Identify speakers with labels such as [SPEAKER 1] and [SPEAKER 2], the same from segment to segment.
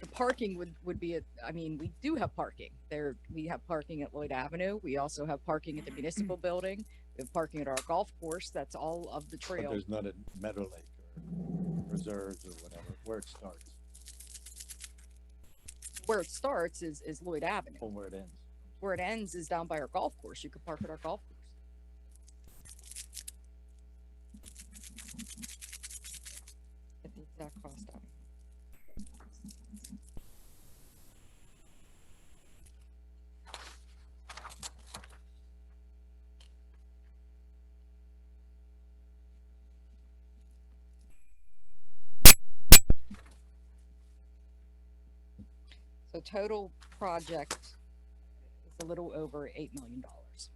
[SPEAKER 1] the parking would, would be, a- I mean, we do have parking. There, we have parking at Lloyd Avenue. We also have parking at the municipal building. We have parking at our golf course. That's all of the
[SPEAKER 2] But
[SPEAKER 1] trail.
[SPEAKER 2] there's not a meadow lake or reserves or whatever, where it starts
[SPEAKER 1] Where it starts is, is Lloyd Avenue.
[SPEAKER 2] or where it ends.
[SPEAKER 1] Where it ends is down by our golf course. You could park at our golf course. Get the exact cost out. So total project is a little over eight million dollars.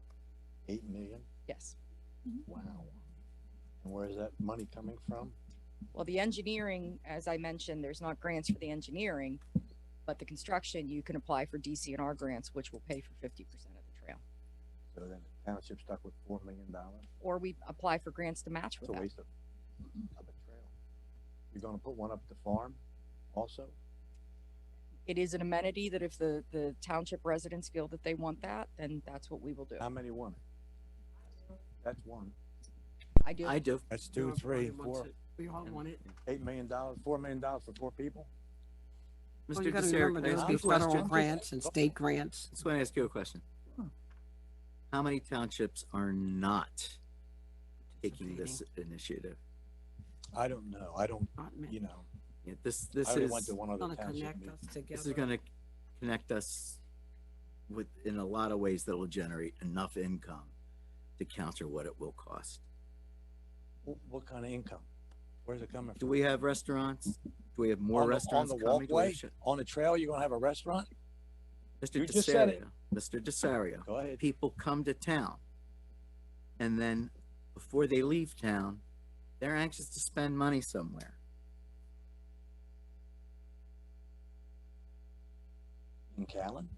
[SPEAKER 2] Eight million?
[SPEAKER 1] Yes.
[SPEAKER 2] Wow. And where is that money coming from?
[SPEAKER 1] Well, the engineering, as I mentioned, there's not grants for the engineering, but the construction, you can apply for DCNR grants, which will pay for fifty percent of the trail.
[SPEAKER 2] So then the township stuck with four million dollars?
[SPEAKER 1] Or we apply for grants to match
[SPEAKER 2] It's
[SPEAKER 1] with
[SPEAKER 2] a
[SPEAKER 1] that.
[SPEAKER 2] waste of, of a trail. You're gonna put one up at the farm also?
[SPEAKER 1] It is an amenity that if the, the township residents feel that they want that, then that's what we will do.
[SPEAKER 2] How many want it? That's one.
[SPEAKER 1] I do.
[SPEAKER 3] I do.
[SPEAKER 4] That's two, three, and four.
[SPEAKER 5] We all want it.
[SPEAKER 2] Eight million dollars, four million dollars for four people?
[SPEAKER 5] Well, you
[SPEAKER 3] Mr.
[SPEAKER 5] gotta
[SPEAKER 3] Desario,
[SPEAKER 5] remember,
[SPEAKER 3] can I
[SPEAKER 5] there'll
[SPEAKER 3] ask
[SPEAKER 5] be
[SPEAKER 3] you a
[SPEAKER 5] federal
[SPEAKER 3] question?
[SPEAKER 5] grants and state grants.
[SPEAKER 3] Just want to ask you a question. How many townships are not taking this initiative?
[SPEAKER 2] I don't know. I don't,
[SPEAKER 5] Not many.
[SPEAKER 2] you know,
[SPEAKER 3] Yeah, This,
[SPEAKER 2] I
[SPEAKER 3] this
[SPEAKER 2] only
[SPEAKER 3] is,
[SPEAKER 2] went to one other
[SPEAKER 5] Gonna
[SPEAKER 2] township
[SPEAKER 5] connect
[SPEAKER 2] meeting.
[SPEAKER 5] us
[SPEAKER 3] this is
[SPEAKER 5] together.
[SPEAKER 3] gonna connect us with, in a lot of ways that will generate enough income to counter what it will cost.
[SPEAKER 2] Wh- What kind of income? Where's it coming from?
[SPEAKER 3] Do we have restaurants? Do we have more
[SPEAKER 2] On the-
[SPEAKER 3] restaurants
[SPEAKER 2] On the
[SPEAKER 3] coming? Do we have
[SPEAKER 2] walkway,
[SPEAKER 3] shit?
[SPEAKER 2] on the trail, you're gonna have a restaurant? You
[SPEAKER 3] Mr.
[SPEAKER 2] just said it.
[SPEAKER 3] Desario, Mr. Desario.
[SPEAKER 2] Go ahead.
[SPEAKER 3] people come to town. And then before they leave town, they're anxious to spend money somewhere.
[SPEAKER 2] In Callan?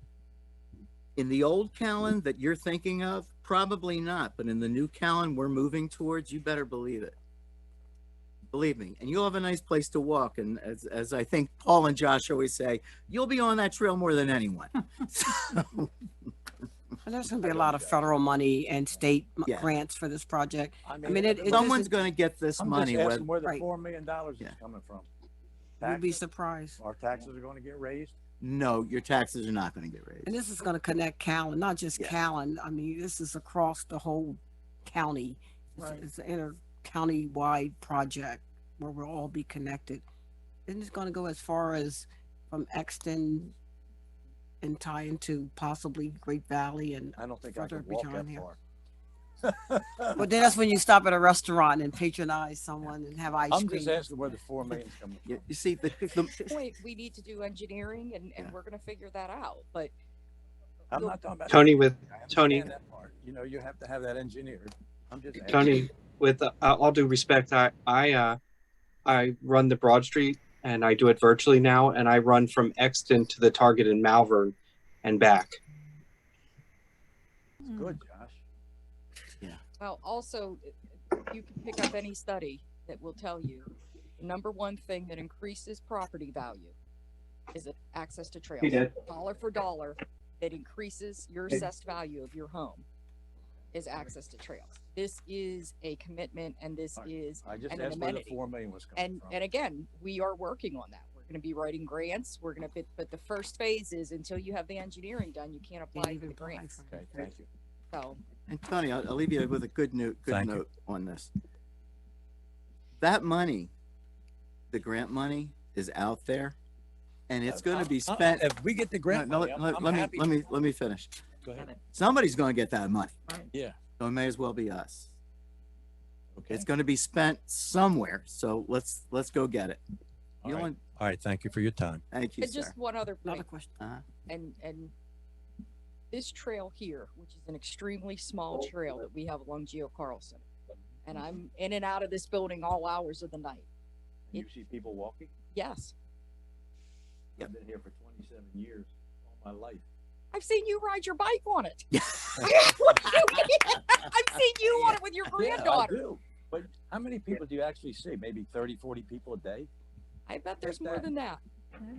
[SPEAKER 3] In the old Callan that you're thinking of, probably not, but in the new Callan we're moving towards, you better believe it. Believe me, and you'll have a nice place to walk. And as, as I think Paul and Josh always say, you'll be on that trail more than anyone. So,
[SPEAKER 5] And there's gonna be a lot of federal money and state m-
[SPEAKER 3] Yeah.
[SPEAKER 5] grants for this project. I mean, it- it just-
[SPEAKER 3] Someone's gonna get this
[SPEAKER 2] I'm
[SPEAKER 3] money,
[SPEAKER 2] just
[SPEAKER 3] whether,
[SPEAKER 2] asking where the
[SPEAKER 5] right.
[SPEAKER 2] four million dollars is
[SPEAKER 3] Yeah.
[SPEAKER 2] coming from.
[SPEAKER 5] You'd be
[SPEAKER 2] Taxes?
[SPEAKER 5] surprised.
[SPEAKER 2] Our taxes are gonna get raised?
[SPEAKER 3] no, your taxes are not gonna get raised.
[SPEAKER 5] And this is gonna connect Callan, not just
[SPEAKER 3] Yeah.
[SPEAKER 5] Callan. I mean, this is across the whole county. It's-
[SPEAKER 2] Right.
[SPEAKER 5] It's an inter-county-wide project where we'll all be connected. And it's gonna go as far as from Exton and tie into possibly Great Valley and
[SPEAKER 2] I don't think I
[SPEAKER 5] Further
[SPEAKER 2] could walk that
[SPEAKER 5] behind here.
[SPEAKER 2] far.
[SPEAKER 5] Well, then that's when you stop at a restaurant and patronize someone and have ice
[SPEAKER 2] I'm just
[SPEAKER 5] cream.
[SPEAKER 2] asking where the four million's coming
[SPEAKER 3] You,
[SPEAKER 2] from.
[SPEAKER 3] you see, the, the,
[SPEAKER 1] Point, we need to do engineering and, and
[SPEAKER 3] Yeah.
[SPEAKER 1] we're gonna figure that out, but
[SPEAKER 2] I'm not talking about.
[SPEAKER 6] Tony with
[SPEAKER 2] I understand
[SPEAKER 6] Tony-
[SPEAKER 2] that part. You know, you have to have that engineered. I'm just. asking.
[SPEAKER 6] Tony, with uh, all due respect, I I uh, I run the Broad Street and I do it virtually now, and I run from Exton to the Target in Malvern and back.
[SPEAKER 2] Good, Josh.
[SPEAKER 1] Well, also, it- it- you can pick up any study that will tell you, the number one thing that increases property value is it- access to trails. Dollar for dollar, that increases your assessed value of your home is access to trails. This is a commitment and this
[SPEAKER 2] Alright.
[SPEAKER 1] is,
[SPEAKER 2] I just
[SPEAKER 1] And an
[SPEAKER 2] asked where the
[SPEAKER 1] amenity.
[SPEAKER 2] four million was coming
[SPEAKER 1] and,
[SPEAKER 2] from.
[SPEAKER 1] and again, we are working on that. We're gonna be writing grants, we're gonna, but, but the first phase is until you have the engineering done, you can't
[SPEAKER 5] Can't
[SPEAKER 1] apply for
[SPEAKER 5] even
[SPEAKER 1] the
[SPEAKER 5] apply
[SPEAKER 1] grants.
[SPEAKER 5] for it.
[SPEAKER 2] Okay, thank you.
[SPEAKER 1] So,
[SPEAKER 3] And Tony, I'll, I'll leave you with a good note, good
[SPEAKER 2] Thank you.
[SPEAKER 3] note on this. That money, the grant money is out there and it's going to be
[SPEAKER 2] Uh, uh,
[SPEAKER 3] spent.
[SPEAKER 2] If we get the grant
[SPEAKER 3] No, no,
[SPEAKER 2] money, I'm,
[SPEAKER 3] let-
[SPEAKER 2] I'm
[SPEAKER 3] let me-
[SPEAKER 2] happy.
[SPEAKER 3] Let me, let me finish.
[SPEAKER 2] Go ahead.
[SPEAKER 3] Somebody's going to get that money.
[SPEAKER 2] Yeah.
[SPEAKER 3] So it may as well be us.
[SPEAKER 2] Okay.
[SPEAKER 3] It's going to be spent somewhere. So let's, let's go get it.
[SPEAKER 2] All
[SPEAKER 3] You
[SPEAKER 2] right.
[SPEAKER 3] want,
[SPEAKER 2] All right, thank you for your time.
[SPEAKER 3] thank you,
[SPEAKER 1] and
[SPEAKER 3] sir.
[SPEAKER 1] just one other point.
[SPEAKER 5] Another question.
[SPEAKER 3] Uh,
[SPEAKER 1] and and this trail here, which is an extremely small
[SPEAKER 2] Oh.
[SPEAKER 1] trail that we have along Geo Carlson, and I'm in and out of this building all hours of the night.
[SPEAKER 2] You see people walking?
[SPEAKER 1] Yes,
[SPEAKER 2] I've been here for twenty-seven years, all my life.
[SPEAKER 1] I've seen you ride your bike on it.
[SPEAKER 3] Yeah.
[SPEAKER 1] What do you mean? I've seen you on it with your
[SPEAKER 2] Yeah, I
[SPEAKER 1] granddaughter.
[SPEAKER 2] do. But how many people do you actually see? Maybe 30, 40 people a day?
[SPEAKER 1] I bet there's
[SPEAKER 2] Get
[SPEAKER 1] more
[SPEAKER 2] that.
[SPEAKER 1] than that.